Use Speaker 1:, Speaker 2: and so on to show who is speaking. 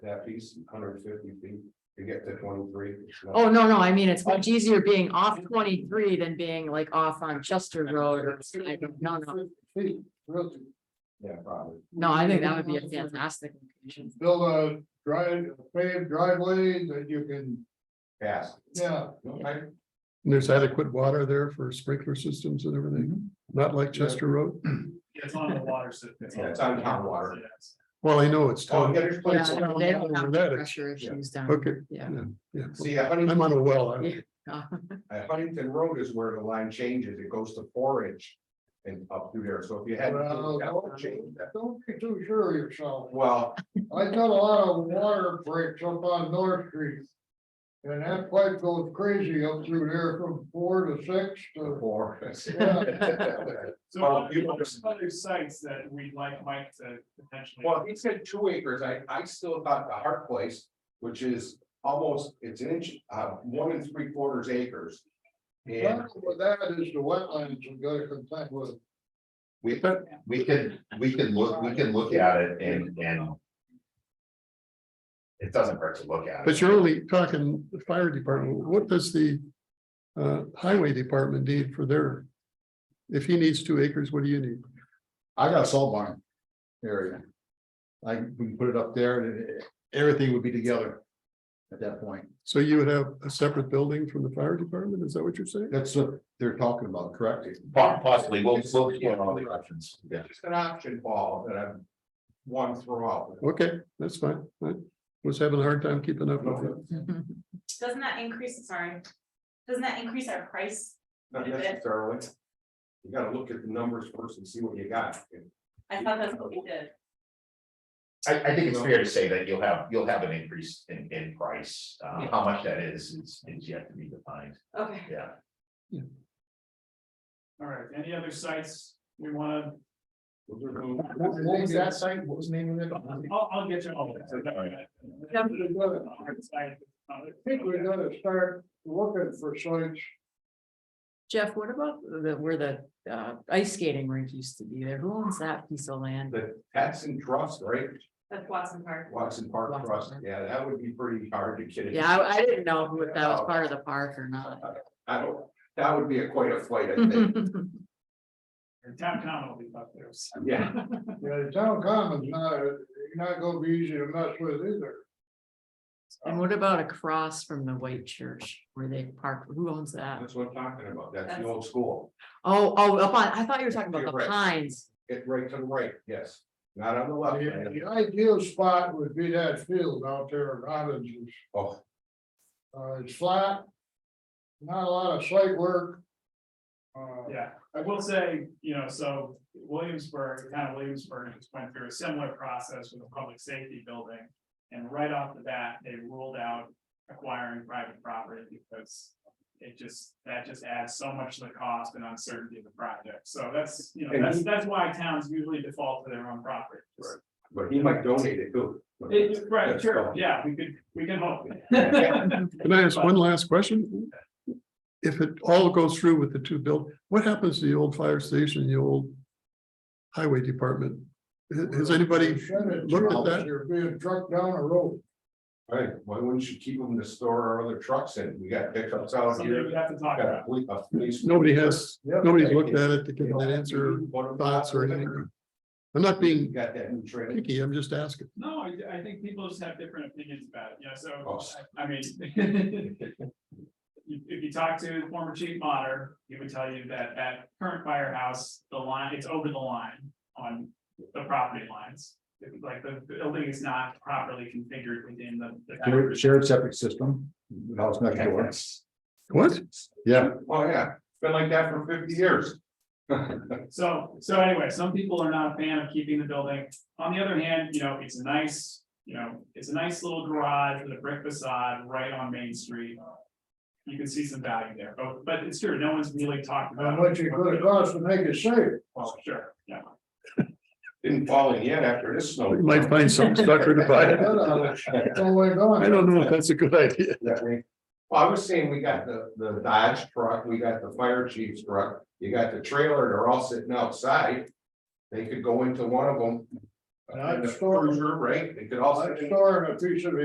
Speaker 1: that piece, hundred fifty feet to get to twenty-three.
Speaker 2: Oh, no, no, I mean, it's much easier being off twenty-three than being like off on Chester Road or, I don't- no, no,
Speaker 3: Feet, really.
Speaker 1: Yeah, probably.
Speaker 2: no, I think that would be a fantastic. location.
Speaker 3: Build a drive, paved driveway that you can,
Speaker 1: Fast.
Speaker 3: yeah.
Speaker 1: Okay.
Speaker 4: There's adequate water there for sprinkler systems and
Speaker 5: Mhm.
Speaker 4: everything, not like Chester Road.
Speaker 6: It's on the water. so
Speaker 1: Yeah, it's on town water.
Speaker 6: Yes.
Speaker 4: Well, I know it's
Speaker 1: Oh,
Speaker 4: town.
Speaker 1: yeah, there's
Speaker 2: Yeah,
Speaker 1: places.
Speaker 2: no, they don't have
Speaker 4: That is-
Speaker 2: pressure issues down,
Speaker 4: Okay,
Speaker 2: yeah.
Speaker 4: yeah.
Speaker 1: See, a Huntington,
Speaker 4: I'm on a well. I-
Speaker 2: Yeah.
Speaker 1: a Huntington Road is where the line changes. It goes to four inch and up through there. So if you had.
Speaker 3: Well,
Speaker 1: that would
Speaker 3: don't-
Speaker 1: change that.
Speaker 3: uh, Don't be too sure of yourself.
Speaker 1: Well,
Speaker 3: I got a lot of water breaks up on North Street. And that pipe goes crazy up through there from four to six
Speaker 1: the
Speaker 3: to.
Speaker 1: four.
Speaker 6: So
Speaker 1: Well,
Speaker 6: what
Speaker 1: you-
Speaker 6: what are some other sites that we'd like Mike to potentially?
Speaker 1: Well, he said two acres. I, I still thought the Hart Place, which is almost, it's an inch, uh, one and three quarters acres. And
Speaker 3: Well, with That is the wetlands we gotta contend with.
Speaker 5: We, we can, we can look, we can look at it and, and. It doesn't hurt to look at it.
Speaker 4: But you're only talking the fire department. What does the uh, highway department need for their? If he needs two acres, what do you need?
Speaker 7: I got a salt barn area. Like, we can put it up there, and it- everything would be together at that point.
Speaker 4: So you would have a separate building from the fire department? Is that what you're saying?
Speaker 7: That's what they're talking about, correct?
Speaker 5: Po- Possibly, we'll, we'll explore all the options. Yeah.
Speaker 1: just an option ball that I've won throughout.
Speaker 4: Okay, that's fine. I was having a hard time keeping up with it.
Speaker 8: Doesn't that increase, sorry, doesn't that increase our price?
Speaker 1: Not necessarily. You gotta look at the numbers first and see what you got.
Speaker 8: I thought that's what we did.
Speaker 5: I, I think it's fair to say that you'll have, you'll have an increase in, in price. Uh, how much that is, is, is yet to be defined.
Speaker 8: Okay.
Speaker 5: Yeah.
Speaker 6: All right, any other sites we wanna,
Speaker 7: What what was that site? What was the name of it?
Speaker 6: I'll, I'll get you all
Speaker 5: right.
Speaker 6: that.
Speaker 3: I think we
Speaker 6: Hard site.
Speaker 3: gotta start looking for sites.
Speaker 2: Jeff, what about the, where the uh ice skating rink used to be there? Who owns that piece of land?
Speaker 1: The tax and trust, right?
Speaker 8: That's Watson Park.
Speaker 1: Watson Park
Speaker 2: Watson
Speaker 1: Trust.
Speaker 2: Park.
Speaker 1: Yeah, that would be pretty hard to get.
Speaker 2: Yeah, I, I didn't know if that was part of the park or not.
Speaker 1: I don't, that would be a quite a flight, I think.
Speaker 6: Town common will be up there. so.
Speaker 1: Yeah.
Speaker 3: Yeah, the town common's uh, not, not gonna be easy to mess with either.
Speaker 2: And what about across from the white church where they park? Who owns that?
Speaker 1: That's what I'm talking about. That's the old school.
Speaker 2: Oh, oh, up on, I thought you were talking about
Speaker 1: You're
Speaker 2: the
Speaker 1: right.
Speaker 2: pines.
Speaker 1: Get right to the right, yes. Not on the left.
Speaker 3: The the ideal spot would be that field out there at Robinson's.
Speaker 1: Oh,
Speaker 3: Uh, it's flat. Not a lot of site work. Uh,
Speaker 6: Yeah, I will say, you know, so Williamsburg, kind of Williamsburg just went through a similar process with a public safety building. And right off the bat, they ruled out acquiring private property because it just, that just adds so much to the cost and uncertainty of the project. So that's, you know, that's, that's why towns usually default to their own property. Just-
Speaker 1: but he might donate it too.
Speaker 6: It- Right,
Speaker 1: That's
Speaker 6: sure,
Speaker 1: all.
Speaker 6: yeah, we could, we can hope.
Speaker 4: Can I ask one last question? If it all goes through with the two build, what happens to the old fire station, the old highway department? Has- Has anybody,
Speaker 3: Shut it
Speaker 4: looked at
Speaker 3: down,
Speaker 4: that?
Speaker 3: You're being trucked down a road.
Speaker 1: Right, why wouldn't you keep them to store our other trucks in? We got pickups out
Speaker 6: Something
Speaker 1: here.
Speaker 6: we have to talk
Speaker 1: Got
Speaker 6: about.
Speaker 1: a fleet- a police-
Speaker 4: nobody has,
Speaker 1: Yep.
Speaker 4: nobody's looked at it to give an answer, or thoughts or anything? I'm not being
Speaker 1: Got that new trailer.
Speaker 4: picky, I'm just asking.
Speaker 6: No, I, I think people just have different opinions about it, you know,
Speaker 1: Oh.
Speaker 6: so, I I mean. If, if you talk to the former chief monitor, he would tell you that that current firehouse, the line, it's over the line on the property lines. It's Like the the building is not properly configured within the.
Speaker 7: Shared-
Speaker 6: the
Speaker 7: Shared septic system, house next door.
Speaker 4: What?
Speaker 7: Yeah,
Speaker 1: Oh, yeah, it's been like that for fifty years.
Speaker 6: So, so anyway, some people are not a fan of keeping the building. On the other hand, you know, it's a nice, you know, it's a nice little garage with a brick facade right on Main Street. You can see some value there, but, but it's true, no one's really talked about.
Speaker 3: How much it could cost to make it safe.
Speaker 6: Well, sure, yeah.
Speaker 1: Didn't fall in yet after this snow.
Speaker 4: You might find some sucker to buy it.
Speaker 3: It's only gone.
Speaker 4: I don't know if that's a good idea.
Speaker 1: that way. Well, I was saying, we got the, the Dodge truck, we got the fire chief's truck, you got the trailer, they're all sitting outside. They could go into one of them,
Speaker 4: And I'd
Speaker 1: in the
Speaker 4: store-
Speaker 1: cruiser, right? They could all. sit
Speaker 4: I'm
Speaker 1: in-
Speaker 4: storing a piece of